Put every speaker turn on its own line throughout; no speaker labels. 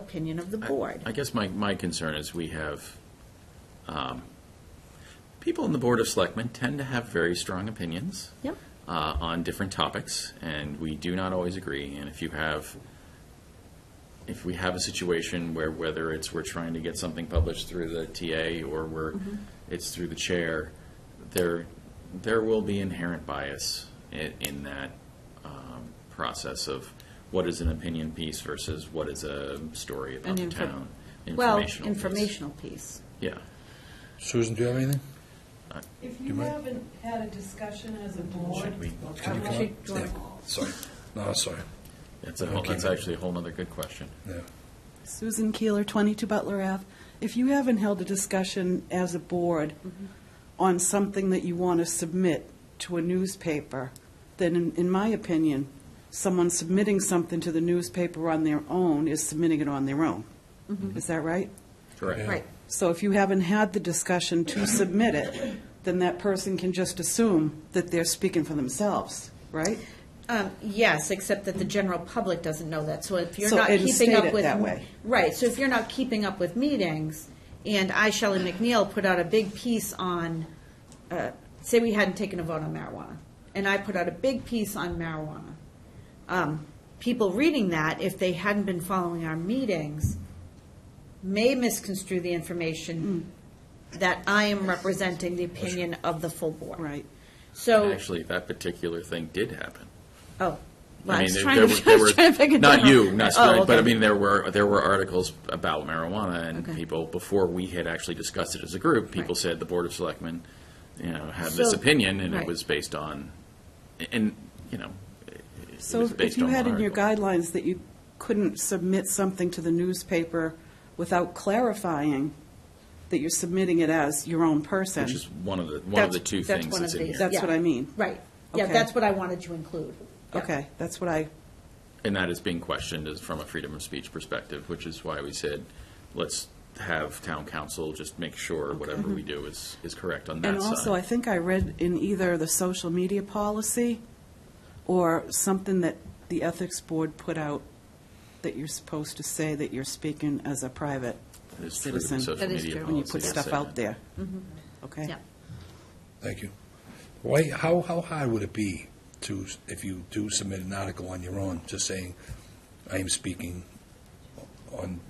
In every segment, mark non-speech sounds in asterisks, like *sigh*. opinion of the
I-
board.
I guess my, my concern is we have, um, people on the Board of Selectmen tend to have very strong opinions.
Yep.
Uh, on different topics, and we do not always agree. And if you have, if we have a situation where whether it's we're trying to get something published through the TA or we're,
Mm-hmm.
it's through the chair, there, there will be inherent bias in, in that, um, process of what is an opinion piece versus what is a story about
An
the
info-
town.
Well,
piece.
informational piece.
Yeah.
Susan, do you have anything?
If
you
you
mind?
haven't had a discussion as a board,
Should we-
I
Um, you
want-
come up? Sorry. No, sorry.
That's a, whole-
Okay.
that's actually a whole nother good question.
Yeah.
Susan Keeler, 22 Butler Ave. If you haven't held a discussion as a board on something that you want to submit to a newspaper, then in, in my opinion, someone submitting something to the newspaper on their own is submitting it on their own. Is that right?
Yeah.
Right.
So if you haven't had the discussion to submit it, then that person can just assume that they're speaking for themselves, right?
Um, Yes, except that the general public doesn't know that. So if you're
So
not
it is
keeping up
stated
with.
that way.
Right, so if you're not keeping up with meetings, and I, Shelley McNeil, put out a big piece on, uh, say we hadn't taken a vote on marijuana, and I put out a big piece on marijuana. Um, People reading that, if they hadn't been following our meetings, may misconstrue the information that I am representing the opinion of the full board.
Mm. Right.
So.
Actually, that particular thing did happen.
Oh, well, I
I mean,
was
there
trying
there
*laughs* to,
were, there
I was trying to figure
were,
it
not
out.
you, not,
Oh,
but I
okay.
mean, there were, there were articles about marijuana and
Okay.
people, before we had actually discussed it as a group, people
Right.
said the Board of Selectmen, you know, had this
So-
opinion and it
right.
was based on, and, you know, it- it
So
was
if- if
based
you
on
had
one
in your
article.
guidelines that you couldn't submit something to the newspaper without clarifying that you're submitting it as your own person.
Which is one of the, one of
That's-
the two
that's
things
one
that's
of
in
these.
here.
That's what I mean.
Right, yeah,
Okay.
that's what I wanted to include. Yeah.
Okay, that's what I,
And that is being questioned as from a freedom of speech perspective, which is why we said, let's have town council just make sure whatever we do is, is correct on
and
that
also, I
side.
think I read in either the social media policy or something that the ethics board put out that you're supposed to say that you're speaking as a private
It's true to the
citizen
social
That is
media
true.
when you put
policy, I'd
stuff
say
out
that.
there. Mm-hmm. Okay?
Yeah.
Thank you. Why, how, how hard would it be to, if you do submit an article on your own, just saying, I am speaking on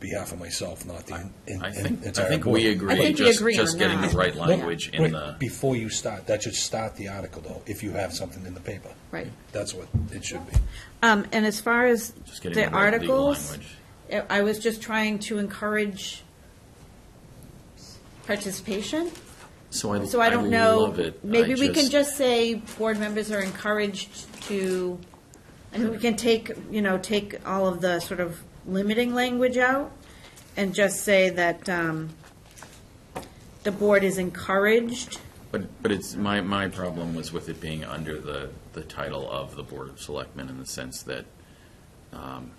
behalf of myself, not the en-
I
en-
think, I
entire
think
board?
we agree,
think we
just,
agree
just
on
getting
that.
the right
Yeah.
language in
Wait,
the,
Before you start, that should start the article, though, if you have something in the paper.
Right.
That's what it should be.
Um, and as far as
just getting
the
the right legal
articles,
language.
I I was just trying to encourage participation.
So I,
So I
I
don't know,
love it.
maybe
I
we can just say board members are encouraged to, I mean, we can take, you know, take all of the sort of limiting language out and just say that um, the board is encouraged.
But, but it's, my, my problem was with it being under the, the title of the Board of Selectmen in the sense that, um,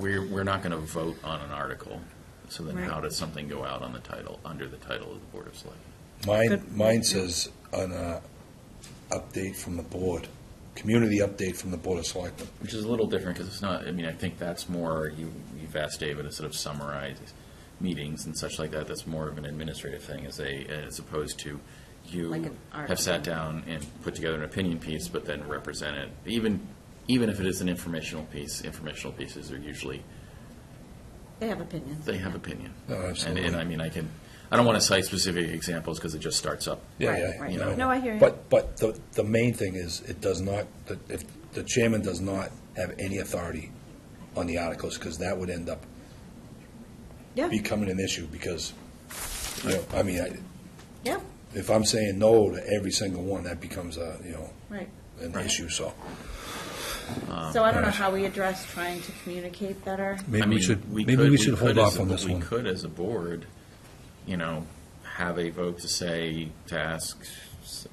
we're, we're not gonna vote on an article. So then
Right.
how does something go out on the title, under the title of the Board of Selectmen?
Mine,
Good.
mine says an uh, update from the board, community update from the Board of Selectmen.
Which is a little different, because it's not, I mean, I think that's more, you, you've asked David to sort of summarize meetings and such like that, that's more of an administrative thing, as a, as opposed to
Like
you
an art.
have sat down and put together an opinion piece, but then represent it, even, even if it is an informational piece, informational pieces are usually,
They have opinions.
they have opinion.
Oh,
And,
absolutely.
and I mean, I can, I don't want to cite specific examples, because it just starts up.
Yeah,
Right,
yeah,
right.
you know.
No, I hear you.
But, but the, the main thing is, it does not, that if, the chairman does not have any authority on the articles, because that would end up
Yeah,
becoming an issue, because, you know, I mean, I-
yeah,
if I'm saying no to every single one, that becomes a, you know,
right.
an
Right.
issue, so.
Um,
So I don't know
right.
how we address trying to communicate better.
I
Maybe
mean,
we should, maybe
could-
we should
could
hold
as
off
a-
on this
We
one.
could, as a board, you know, have a vote to say, to ask s-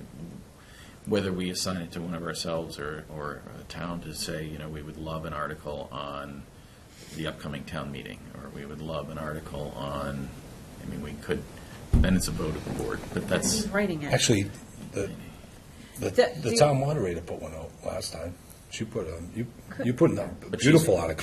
whether we assign it to one of ourselves or, or a town to say, you know, we would love an article on the upcoming town meeting, or we would love an article on, I mean, we could, then it's a vote of the board, but that's,
Writing it.
Uh, Actually, the, the,
The-
the
the-
town moderator put one out last time. She put, a- you, you put in a
But she's-
beautiful article.